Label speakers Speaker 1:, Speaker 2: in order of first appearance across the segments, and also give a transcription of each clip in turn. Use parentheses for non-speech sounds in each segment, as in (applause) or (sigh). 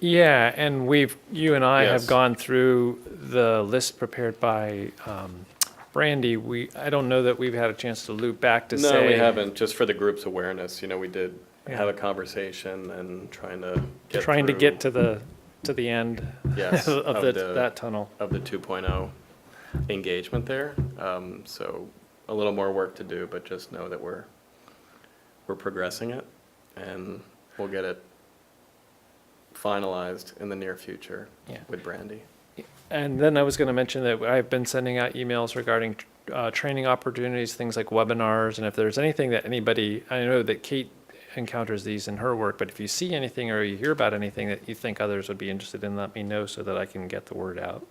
Speaker 1: Yeah, and we've, you and I have
Speaker 2: Yes.
Speaker 1: gone through the list prepared by um, Brandy. We, I don't know that we've had a chance to loop back to say.
Speaker 2: No, we haven't, just for the group's awareness, you know, we did have
Speaker 1: Yeah.
Speaker 2: a conversation and trying to get
Speaker 1: Trying to get
Speaker 2: through
Speaker 1: to the, to the end
Speaker 2: Yes,
Speaker 1: (laughs)
Speaker 2: uh,
Speaker 1: of
Speaker 2: of
Speaker 1: the-
Speaker 2: the-
Speaker 1: that tunnel.
Speaker 2: Of the 2.0 engagement there, Um, so a little more work to do, but just know that we're, we're progressing it, and we'll get it finalized in the near future
Speaker 1: Yeah.
Speaker 2: with Brandy.
Speaker 1: And then I was going to mention that I've been sending out emails regarding uh, training opportunities, things like webinars, and if there's anything that anybody, I know that Kate encounters these in her work, but if you see anything or you hear about anything that you think others would be interested in, let me know so that I can get the word out.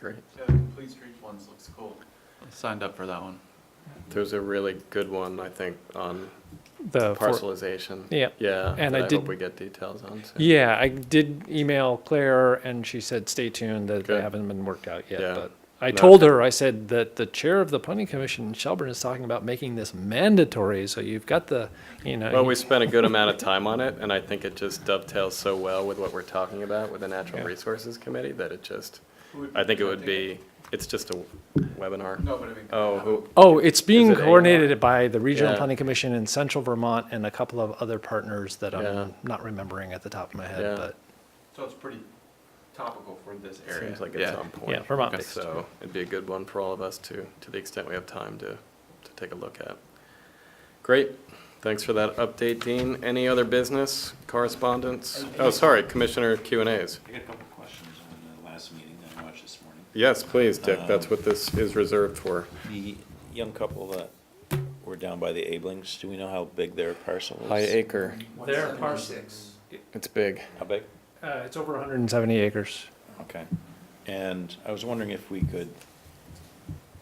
Speaker 2: Great.
Speaker 3: Yeah, the Complete Streets ones looks cool. I Signed up for that one.
Speaker 2: There's a really good one, I think, on
Speaker 1: The for-
Speaker 2: parcelization.
Speaker 1: Yeah.
Speaker 2: Yeah,
Speaker 1: And
Speaker 2: that
Speaker 1: I
Speaker 2: I hope
Speaker 1: did-
Speaker 2: we get details on soon.
Speaker 1: Yeah, I did email Claire and she said, stay tuned, that they
Speaker 2: Good.
Speaker 1: haven't been worked out yet.
Speaker 2: Yeah.
Speaker 1: But I
Speaker 2: No.
Speaker 1: told her, I said that the chair of the planning commission in Shelburne is talking about making this mandatory. So you've got the, you know.
Speaker 2: Well,
Speaker 1: you-
Speaker 2: we spent a good amount of time on it, and I think it just dovetails so well with what we're talking about with the Natural
Speaker 1: Yeah.
Speaker 2: Resources Committee that it just, I think it would be, it's just a webinar.
Speaker 3: No, but I mean.
Speaker 2: Oh, who,
Speaker 1: Oh, it's being
Speaker 2: it AR?
Speaker 1: coordinated by the Regional
Speaker 2: Yeah.
Speaker 1: Planning Commission in Central Vermont and a couple of other partners that
Speaker 2: Yeah.
Speaker 1: I'm not remembering at the top of my
Speaker 2: Yeah.
Speaker 1: head, but
Speaker 3: So it's pretty topical for this area.
Speaker 2: seems like it's um, on
Speaker 1: yeah,
Speaker 2: point.
Speaker 1: Vermont.
Speaker 3: Okay.
Speaker 1: based.
Speaker 2: So it'd be a good one for all of us to, to the extent we have time to, to take a look at. Great, thanks for that update, Dean. Any other business, correspondence? Oh, sorry, Commissioner Q and As.
Speaker 4: I got a couple of questions on the last meeting that I watched this morning.
Speaker 2: Yes, please, Dick, that's what this is reserved for.
Speaker 4: The young couple that were down by the Ablings, do we know how big their parcel is?
Speaker 2: High acre,
Speaker 1: Their parcel,
Speaker 2: it's big.
Speaker 4: How big?
Speaker 1: uh, it's over 170 acres.
Speaker 4: Okay. And I was wondering if we could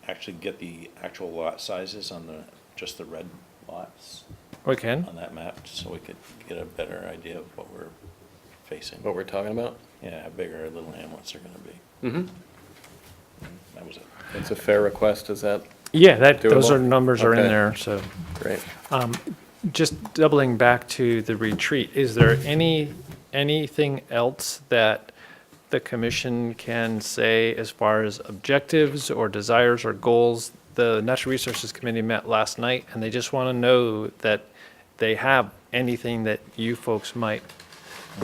Speaker 4: actually get the actual lot sizes on the, just the red lots
Speaker 1: We can.
Speaker 4: on that map, so we could get a better idea of what we're facing.
Speaker 2: What we're talking about?
Speaker 4: Yeah, how big our little hamlets are gonna be.
Speaker 2: Mm-hmm.
Speaker 4: That was it.
Speaker 2: It's a fair request, is that
Speaker 1: Yeah, that, those
Speaker 2: Doable?
Speaker 1: are, numbers are in
Speaker 2: Okay.
Speaker 1: there, so.
Speaker 2: great?
Speaker 1: Just doubling back to the retreat, is there any, anything else that the commission can say as far as objectives or desires or goals? The Natural Resources Committee met last night, and they just want to know that they have anything that you folks might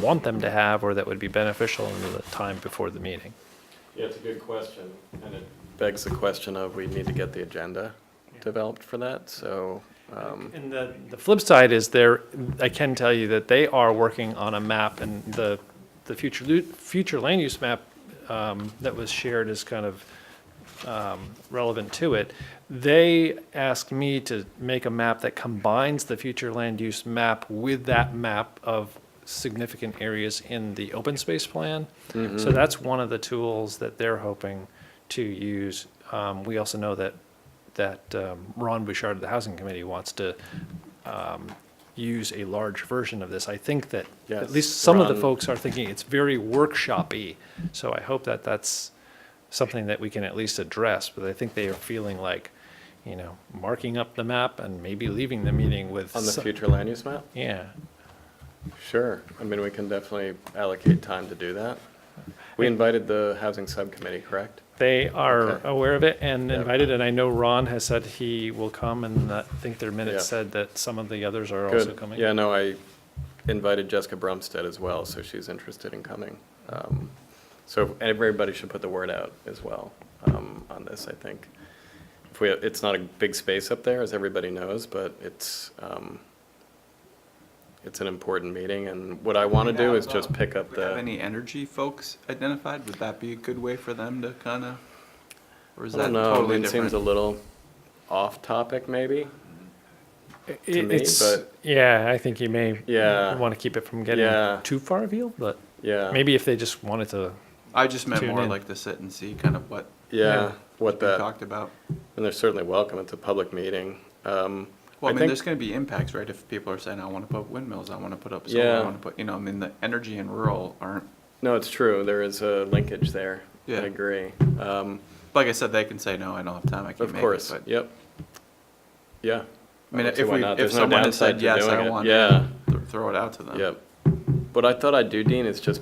Speaker 1: want them to have or that would be beneficial in the time before the meeting.
Speaker 2: Yeah, it's a good question, and it begs the question of, we need to get the agenda developed for that, so, um,
Speaker 1: And the, the flip side is there, I can tell you that they are working on a map and the, the future, lu- future land use map um, that was shared is kind of um, relevant to it. They asked me to make a map that combines the future land use map with that map of significant areas in the open space plan.
Speaker 2: Mm-hmm.
Speaker 1: So that's one of the tools that they're hoping to use. Um, We also know that, that um, Ron Bouchard of the Housing Committee wants to um, use a large version of this. I think that, at
Speaker 2: Yes,
Speaker 1: least some of the
Speaker 2: Ron-
Speaker 1: folks are thinking it's very workshop-y. So I hope that that's something that we can at least address, but I think they are feeling like, you know, marking up the map and maybe leaving the meeting with.
Speaker 2: on the
Speaker 1: some-
Speaker 2: future land use map?
Speaker 1: Yeah,
Speaker 2: Sure, I mean, we can definitely allocate time to do that. We invited the housing subcommittee, correct?
Speaker 1: they are
Speaker 2: Okay.
Speaker 1: aware of it and
Speaker 2: Yep.
Speaker 1: invited, and I know Ron has said he will come, and I think their minutes
Speaker 2: Yeah.
Speaker 1: said that some of the others are also
Speaker 2: Good,
Speaker 1: coming.
Speaker 2: yeah, no, I invited Jessica Brumstead as well, so she's interested in coming. Um, So everybody should put the word out as well um, on this, I think. If we, it's not a big space up there, as everybody knows, but it's, um, it's an important meeting, and what I want to do is just pick up
Speaker 3: Do we have
Speaker 2: the,
Speaker 3: any energy folks identified? Would that be a good way for them to kind of? Or
Speaker 2: I
Speaker 3: is that
Speaker 2: don't know,
Speaker 3: totally
Speaker 2: it seems a
Speaker 3: different?
Speaker 2: little off-topic, maybe?
Speaker 1: It-
Speaker 2: to me,
Speaker 1: It's,
Speaker 2: but-
Speaker 1: yeah, I think you may
Speaker 2: Yeah.
Speaker 1: want to keep it from
Speaker 2: Yeah.
Speaker 1: getting too far afield, but
Speaker 2: Yeah.
Speaker 1: maybe if they just wanted to,
Speaker 3: I just meant
Speaker 1: Tune
Speaker 3: more
Speaker 1: in.
Speaker 3: like to sit and see kind of what
Speaker 2: Yeah,
Speaker 3: we
Speaker 2: what that,
Speaker 3: talked about.
Speaker 2: and they're certainly welcome, it's a public meeting. Um,
Speaker 3: Well, I mean,
Speaker 2: think-
Speaker 3: there's gonna be impacts, right? If people are saying, I wanna put windmills, I wanna put up solar,
Speaker 2: Yeah.
Speaker 3: I wanna put, you know, I mean, the energy and rural aren't,
Speaker 2: No, it's true. There is a linkage there. I
Speaker 3: Yeah.
Speaker 2: agree. Um,
Speaker 3: like I said, they can say, no, I don't have time, I can't
Speaker 2: Of
Speaker 3: make it.
Speaker 2: course,
Speaker 3: but-
Speaker 2: yep. Yeah.
Speaker 3: I mean,
Speaker 2: see
Speaker 3: if
Speaker 2: why
Speaker 3: we,
Speaker 2: not.
Speaker 3: if
Speaker 2: There's no
Speaker 3: someone had
Speaker 2: downside
Speaker 3: said,
Speaker 2: to
Speaker 3: yes,
Speaker 2: doing
Speaker 3: I
Speaker 2: it."
Speaker 3: want, Oh.
Speaker 2: Yeah,
Speaker 3: to," th- throw it out to them.
Speaker 2: yep. What I thought I'd do, Dean, is just